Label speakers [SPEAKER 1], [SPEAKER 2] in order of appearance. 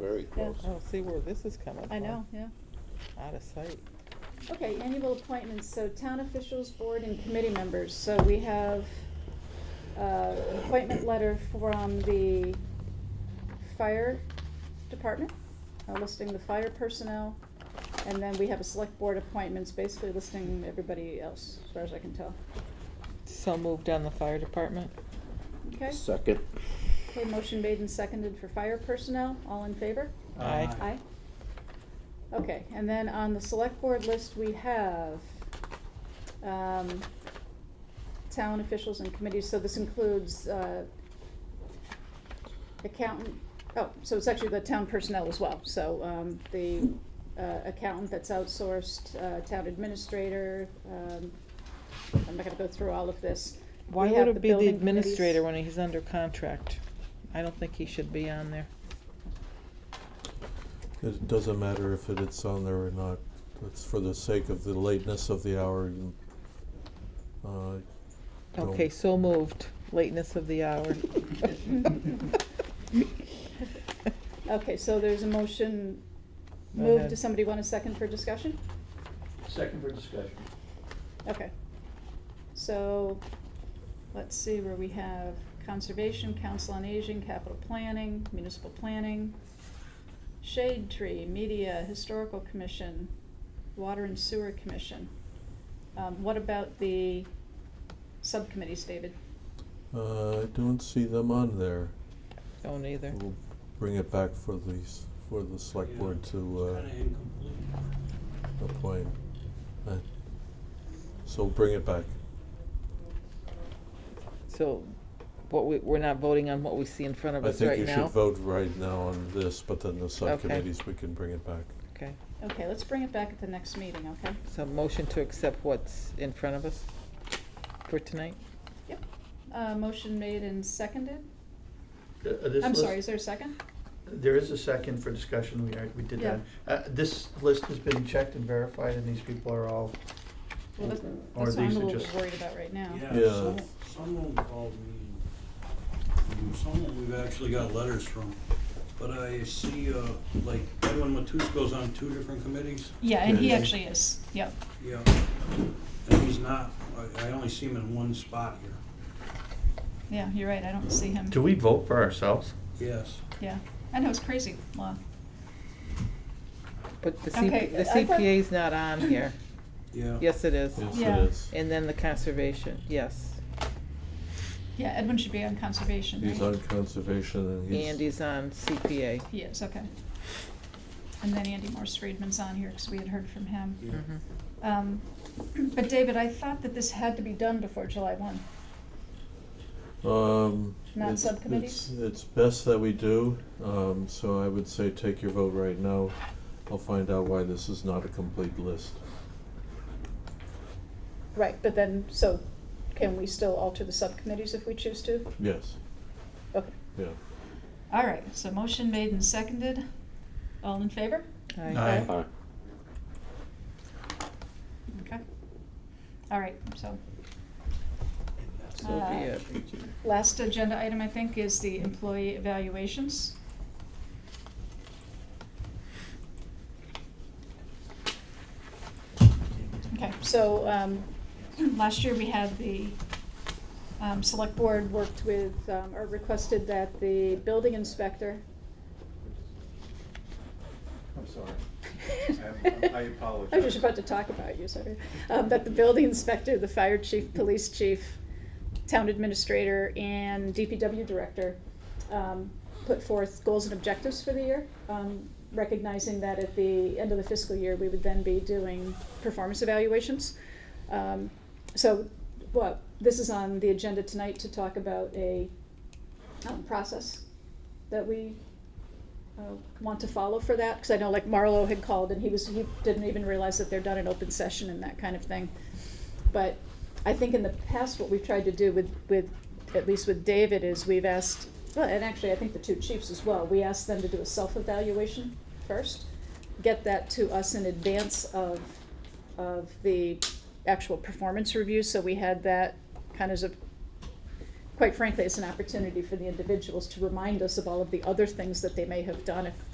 [SPEAKER 1] very close.
[SPEAKER 2] I don't Oh, see where this is coming from.
[SPEAKER 3] I know, yeah.
[SPEAKER 2] Out of sight.
[SPEAKER 3] Okay, annual appointments, so town officials, board and committee members, so we have, uh, an appointment letter from the fire department, uh, listing the fire personnel, and then we have a select board appointments, basically listing everybody else, as far as I can tell.
[SPEAKER 2] So moved on the fire department.
[SPEAKER 3] Okay,
[SPEAKER 1] Second.
[SPEAKER 3] okay, motion made and seconded for fire personnel, all in favor?
[SPEAKER 2] Aye.
[SPEAKER 3] Aye. Okay, and then on the select board list, we have, um, town officials and committees, so this includes, uh, accountant, oh, so it's actually the town personnel as well, so, um, the, uh, accountant that's outsourced, uh, town administrator, um, I'm not gonna go through all of this.
[SPEAKER 2] Why
[SPEAKER 3] We
[SPEAKER 2] would
[SPEAKER 3] have
[SPEAKER 2] it be the
[SPEAKER 3] building committees.
[SPEAKER 2] administrator when he's under contract? I don't think he should be on there.
[SPEAKER 4] It doesn't matter if it- it's on there or not, it's for the sake of the lateness of the hour. you- uh, don't-
[SPEAKER 2] Okay, so moved, lateness of the hour.
[SPEAKER 3] Okay, so there's a motion,
[SPEAKER 2] Go
[SPEAKER 3] move,
[SPEAKER 2] ahead.
[SPEAKER 3] does somebody want a second for discussion?
[SPEAKER 1] Second for discussion.
[SPEAKER 3] Okay. So, let's see where we have Conservation, Council on Aging, Capital Planning, Municipal Planning, Shade Tree, Media, Historical Commission, Water and Sewer Commission. Um, what about the subcommittees, David?
[SPEAKER 4] Uh, I don't see them on there.
[SPEAKER 2] Don't either.
[SPEAKER 4] We'll bring it back for these, for the select board to uh,
[SPEAKER 5] It's kinda incomplete.
[SPEAKER 4] appoint. Uh, So bring it back.
[SPEAKER 2] So, what we, we're not voting on what we see in front of
[SPEAKER 4] I
[SPEAKER 2] us right
[SPEAKER 4] think
[SPEAKER 2] now?
[SPEAKER 4] you should vote right now on this, but then the subcommittees, we can bring it back.
[SPEAKER 2] Okay,
[SPEAKER 3] Okay, let's bring it back at the next meeting, okay?
[SPEAKER 2] so motion to accept what's in front of us for tonight?
[SPEAKER 3] Yep. Uh, motion made and seconded.
[SPEAKER 6] I'm
[SPEAKER 3] I'm sorry, is there a second?
[SPEAKER 6] There is a second for discussion, we, are- we did that. Uh, This list has been checked and verified, and these people are all,
[SPEAKER 3] Well, that's,
[SPEAKER 6] Or
[SPEAKER 3] that's what I'm
[SPEAKER 6] these
[SPEAKER 3] a
[SPEAKER 6] are
[SPEAKER 3] little bit
[SPEAKER 6] just-
[SPEAKER 3] worried about right now.
[SPEAKER 4] Yeah.
[SPEAKER 5] Yeah, some- someone called me, someone we've actually got letters from, but I see, uh, like, Edwin Matus goes on two different committees,
[SPEAKER 3] Yeah, and he
[SPEAKER 4] Yeah.
[SPEAKER 3] actually is, yep.
[SPEAKER 5] yeah. And he's not, I, I only see him in one spot here,
[SPEAKER 3] Yeah, you're right, I don't see him.
[SPEAKER 6] do we vote for ourselves?
[SPEAKER 5] yes.
[SPEAKER 3] Yeah, I know, it's crazy law.
[SPEAKER 2] But the
[SPEAKER 3] Okay,
[SPEAKER 2] CP, the
[SPEAKER 3] I thought-
[SPEAKER 2] CPA's not on here.
[SPEAKER 5] Yeah.
[SPEAKER 2] Yes, it is.
[SPEAKER 4] Yes,
[SPEAKER 3] Yeah.
[SPEAKER 4] it is.
[SPEAKER 2] And then the conservation, yes.
[SPEAKER 3] Yeah, Edwin should be on conservation,
[SPEAKER 4] He's
[SPEAKER 3] right?
[SPEAKER 4] on conservation and he's.
[SPEAKER 2] Andy's on CPA.
[SPEAKER 3] He is, okay. And then Andy Morse Friedman's on here, because we had heard from him.
[SPEAKER 5] Yeah.
[SPEAKER 2] Mhm.
[SPEAKER 3] Um, But David, I thought that this had to be done before July one.
[SPEAKER 4] Um.
[SPEAKER 3] Not
[SPEAKER 4] it's-
[SPEAKER 3] subcommittees?
[SPEAKER 4] It's, it's best that we do, um, so I would say take your vote right now. I'll find out why this is not a complete list.
[SPEAKER 3] Right, but then, so can we still alter the subcommittees if we choose to?
[SPEAKER 4] Yes,
[SPEAKER 3] Okay.
[SPEAKER 4] yeah.
[SPEAKER 3] All right, so motion made and seconded. All in favor?
[SPEAKER 2] Aye.
[SPEAKER 6] Aye.
[SPEAKER 1] Aye.
[SPEAKER 3] Okay. All right, so
[SPEAKER 2] So be
[SPEAKER 3] Uh,
[SPEAKER 2] it.
[SPEAKER 3] Last agenda item, I think, is the employee evaluations. Okay, so, um, last year we had the, um, select board worked with, um, or requested that the building inspector.
[SPEAKER 7] I'm sorry. I- I apologize.
[SPEAKER 3] I was just about to talk about you, sorry. Um, that the building inspector, the fire chief, police chief, town administrator and DPW director um, put forth goals and objectives for the year, um, recognizing that at the end of the fiscal year, we would then be doing performance evaluations. Um, So, well, this is on the agenda tonight to talk about a um, process that we uh, want to follow for that, because I know like Marlo had called and he was, he didn't even realize that they're done in open session and that kind of thing. But I think in the past, what we've tried to do with, with, at least with David, is we've asked, well, and actually, I think the two chiefs as well, we asked them to do a self-evaluation first, get that to us in advance of, of the actual performance review, so we had that kind of as a, quite frankly, it's an opportunity for the individuals to remind us of all of the other things that they may have done if